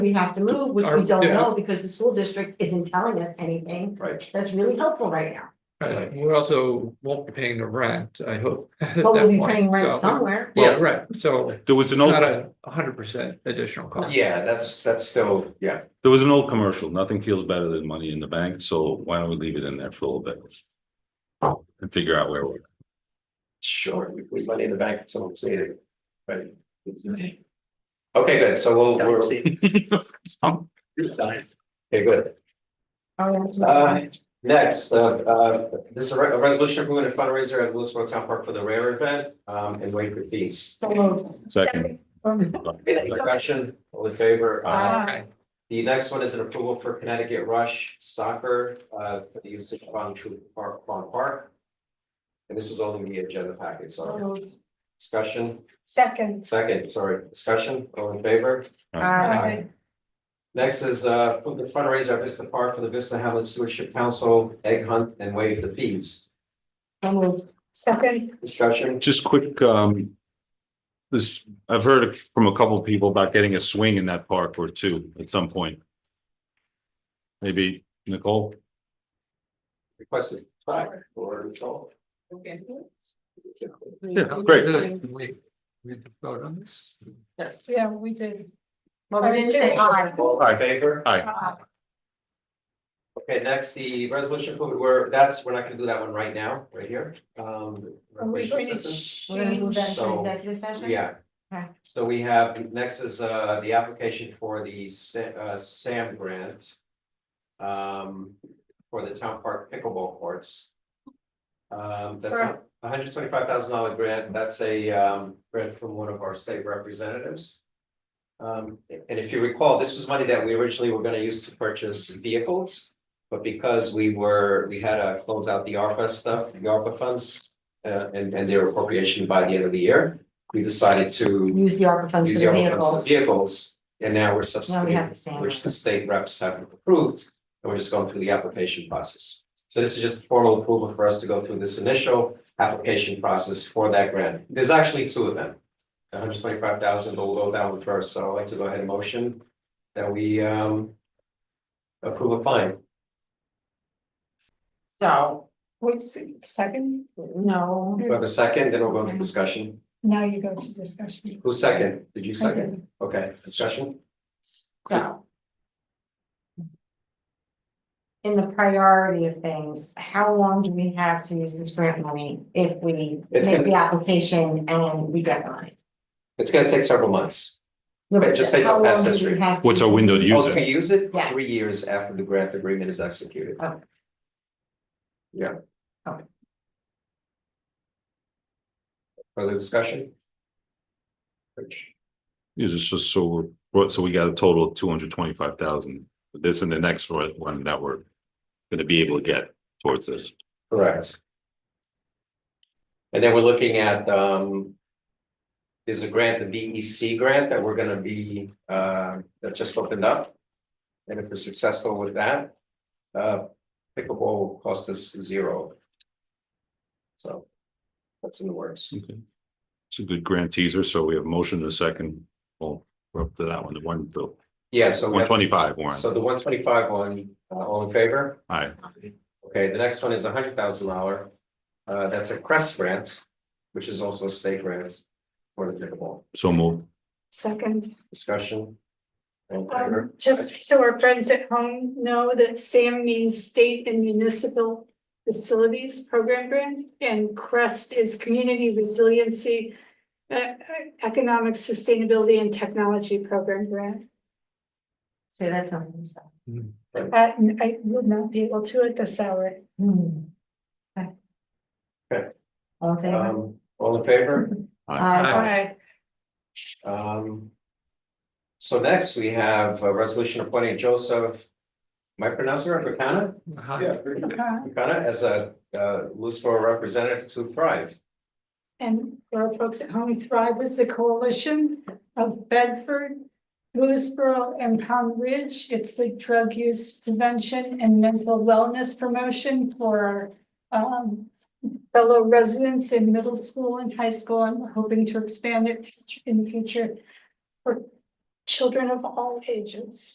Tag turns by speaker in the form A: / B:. A: we have to move, which we
B: Our-
A: don't
B: yeah.
A: know because the school district isn't telling us anything.
C: Right.
A: That's really helpful right now,
B: Uh, we also won't be paying the rent, I hope. at
A: but we'll
B: that
A: be
B: point,
A: paying rent
B: so-
A: somewhere.
B: Yeah, right, so
D: There was an old,
B: not a hundred percent additional cost.
C: Yeah, that's, that's still, yeah,
D: there was an old commercial, nothing feels better than money in the bank, so why don't we leave it in there for a little bit? And figure out where we're.
C: sure, we put money in the bank until it's needed, but. Okay, good, so we'll, we're. Okay, good. Uh,
A: Um,
C: next, uh, uh, this is a re- a resolution approving a fundraiser at Lewisboro Town Park for the rare event, um, and wait for fees.
A: So moved.
D: Second.
C: Discussion, all in favor?
A: Aye.
B: Okay,
C: The next one is an approval for Connecticut Rush Soccer, uh, for the usage of Bonny True Park, Bonny Park. And this was all in the agenda packet,
A: So
C: sorry.
A: moved.
C: Discussion,
E: Second.
C: second, sorry, discussion, all in favor?
A: Uh,
C: Next is uh for the fundraiser at Vista Park for the Vista Hamlet Stewardship Council, egg hunt and waive the fees.
A: so moved.
E: Second,
C: Discussion,
D: Just quick, um. This, I've heard from a couple of people about getting a swing in that park or two at some point. Maybe Nicole,
C: requested five or control.
D: yeah, great,
B: Can We, we vote on this?
A: Yes.
E: yeah, we did.
A: Well, we didn't say aye.
C: All in favor?
E: Uh,
C: Okay, next, the resolution, we were, that's, we're not gonna do that one right now, right here, um.
E: Are we
C: recreational
E: going to
C: assistance.
A: We're gonna move
E: change?
A: that to
C: So,
A: executive session?
C: Yeah.
A: Okay.
C: So we have, next is uh the application for the Sa- uh SAM grant. Um, for the town park pickleball courts. Um, that's a hundred twenty five thousand dollar grant, that's a um grant from one of our state representatives. Um, and if you recall, this was money that we originally were gonna use to purchase vehicles. But because we were, we had to close out the ARPA stuff, the ARPA funds, uh and and their appropriation by the end of the year we decided to
A: Use the ARPA funds for
C: use
A: the
C: the funds for
A: vehicles.
C: the vehicles. And now we're
A: Now we have
C: substituting,
A: the same.
C: which the state reps have approved, and we're just going through the application process. So this is just formal approval for us to go through this initial application process for that grant. There's actually two of them. hundred twenty-five thousand, but we'll go down one first, so I'd like to go ahead and motion that we um approve applying.
A: So,
E: Wait, se- second,
A: no.
C: Do I have a second? Then we'll go into discussion.
E: now you go to discussion.
C: Who second? Did you
E: I
C: second?
E: did.
C: Okay, discussion?
A: So. In the priority of things, how long do we have to use this grant money if we make
C: It's gonna-
A: the application and we get the money?
C: It's gonna take several months. But just based on
A: How
C: past
A: long do we
C: history.
A: have to-
D: what's our window to use
C: Oh, to
D: it?
C: use it,
A: Yes.
C: three years after the grant agreement is executed.
A: Okay.
C: Yeah.
A: Okay.
C: Further discussion? Rich?
D: Is it just so we're, so we got a total of two hundred twenty-five thousand, this and the next one one that we're. Gonna be able to get towards this,
C: Correct. And then we're looking at, um. There's a grant, the DEC grant that we're gonna be, uh, that just opened up. And if we're successful with that, uh, pickleball will cost us zero. So. That's in the works.
D: it's a good grant teaser, so we have a motion to second, well, we're up to that one, the one, the
C: Yeah, so. we
D: one
C: have-
D: twenty-five one,
C: So the one twenty-five one, uh, all in favor?
D: aye.
C: Okay, the next one is a hundred thousand dollar. Uh, that's a Crest grant, which is also a state grant for the pickleball
D: So move.
E: Second,
C: discussion. All in
E: um,
C: favor?
E: just so our friends at home know that SAM means State and Municipal Facilities Program Grant, and CREST is Community Resiliency, uh, Economic Sustainability and Technology Program Grant.
A: Say that something, so.
E: Uh, n- I would not be able to at this hour.
A: Hmm. Okay.
C: Okay.
A: All in favor? Uh,
C: Um, all in favor?
A: Aye.
E: Aye.
C: Um. So next we have a resolution appointing Joseph. Am I pronouncing it right, Buchanan?
B: Hi.
E: Uh,
C: Buchanan as a, uh, Lewisboro representative to Thrive.
E: And for our folks at home, Thrive is the coalition of Bedford, Lewisboro and Pound Ridge. It's the drug use prevention and mental wellness promotion for um fellow residents in middle school and high school. I'm hoping to expand it in future for children of all ages.